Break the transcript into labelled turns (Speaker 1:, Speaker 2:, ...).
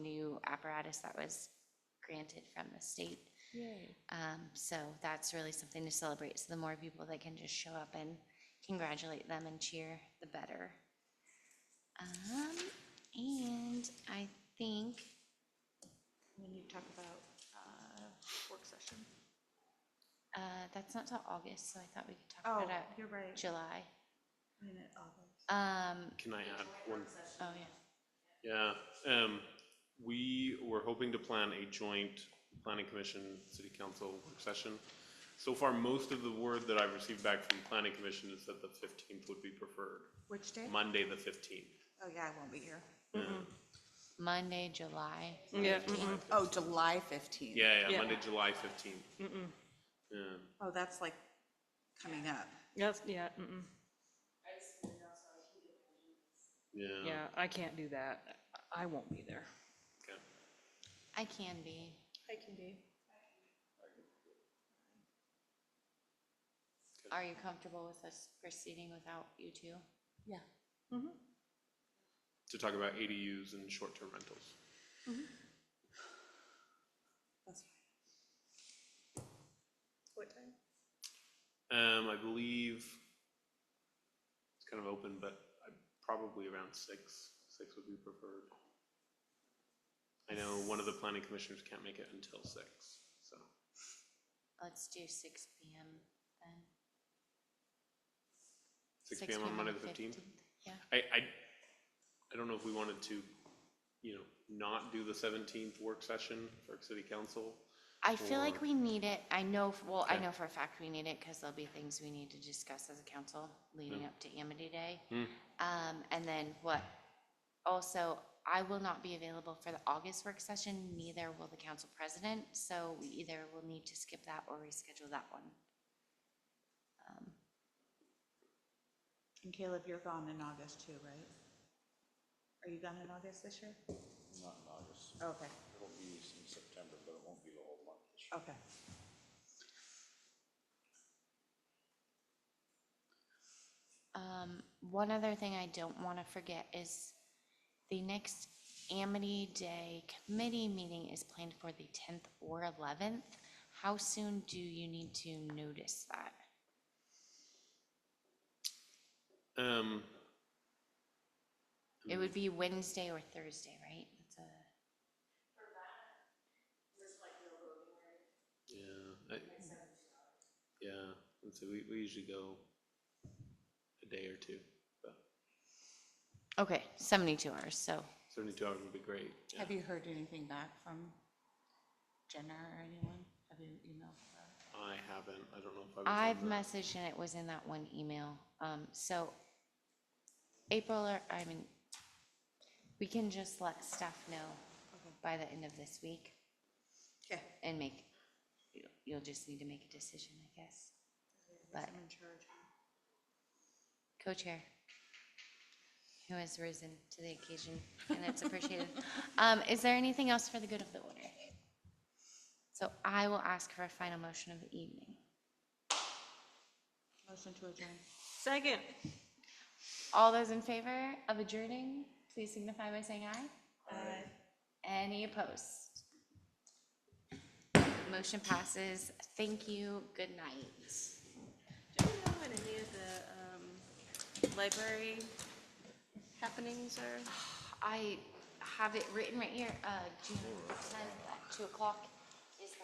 Speaker 1: apparatus that was granted from the state.
Speaker 2: Yay.
Speaker 1: Um, So that's really something to celebrate. So the more people that can just show up and congratulate them and cheer, the better. Um, And I think
Speaker 2: When you talk about uh, work session.
Speaker 1: uh, that's not till August, so I thought we could talk
Speaker 2: Oh,
Speaker 1: about it
Speaker 2: you're right.
Speaker 1: July.
Speaker 2: Wait a minute, August.
Speaker 1: Um,
Speaker 3: Can I add one?
Speaker 1: Oh, yeah.
Speaker 3: Yeah, um, we were hoping to plan a joint planning commission, city council work session. So far, most of the word that I've received back from planning commission is that the fifteenth would be preferred,
Speaker 2: Which day?
Speaker 3: Monday the fifteenth.
Speaker 2: Oh, yeah, I won't be here.
Speaker 1: Monday, July.
Speaker 4: Yeah,
Speaker 2: Oh, July 15th.
Speaker 3: Yeah, yeah,
Speaker 4: Yeah.
Speaker 3: Monday, July fifteenth. Yeah,
Speaker 2: Oh, that's like coming up.
Speaker 4: yes, yeah, mm-mm,
Speaker 3: yeah.
Speaker 4: yeah, I can't do that. I won't be there.
Speaker 3: okay.
Speaker 1: I can be.
Speaker 4: I can be.
Speaker 1: Are you comfortable with us proceeding without you two?
Speaker 4: Yeah.
Speaker 3: To talk about ADUs and short-term rentals.
Speaker 2: Mm-hmm. That's fine. What time?
Speaker 3: Um, I believe it's kind of open, but I, probably around six, six would be preferred. I know one of the planning commissioners can't make it until six, so.
Speaker 1: Let's do six PM then.
Speaker 3: Six PM on Monday the fifteenth?
Speaker 1: Yeah,
Speaker 3: I, I, I don't know if we wanted to, you know, not do the seventeenth work session for city council.
Speaker 1: I feel like
Speaker 3: Or-
Speaker 1: we need it, I know, f- well, I
Speaker 3: Okay.
Speaker 1: know for a fact we need it, because there'll be things we need to discuss as a council leading up to Amity Day.
Speaker 3: Hmm.
Speaker 1: Um, and then what, also, I will not be available for the August work session, neither will the council president, so we either will need to skip that or reschedule that one. Um,
Speaker 2: And Caleb, you're gone in August too, right? Are you gone in August this year?
Speaker 5: Not in August.
Speaker 2: Okay,
Speaker 5: It'll be in September, but it won't be the whole month this year.
Speaker 2: okay.
Speaker 1: Um, one other thing I don't want to forget is the next Amity Day committee meeting is planned for the tenth or eleventh. How soon do you need to notice that?
Speaker 3: Um,
Speaker 1: It would be Wednesday or Thursday, right? That's a-
Speaker 3: yeah, I, yeah, and so we, we usually go a day or two, but
Speaker 1: Okay, seventy-two hours, so
Speaker 3: seventy-two hours would be great. yeah.
Speaker 2: Have you heard anything back from Jenna or anyone? Have you emailed her?
Speaker 3: I haven't. I don't know if I was. on
Speaker 1: I've
Speaker 3: the-
Speaker 1: messaged and it was in that one email. Um, so April or, I mean, we can just let staff know by the end of this week.
Speaker 2: Okay.
Speaker 1: and make, you- you'll just need to make a decision, I guess. But
Speaker 2: I'm in charge.
Speaker 1: co-chair, who has risen to the occasion, and it's appreciated. Um, Is there anything else for the good of the order? So I will ask for a final motion of the evening.
Speaker 2: Motion to adjourn.
Speaker 4: Second.
Speaker 1: All those in favor of adjourning, please signify by saying aye. Any opposed? Motion passes. Thank you. Good night.
Speaker 6: Do we know when any of the um, library happenings are?
Speaker 1: I have it written right here, uh, June tenth at two o'clock is the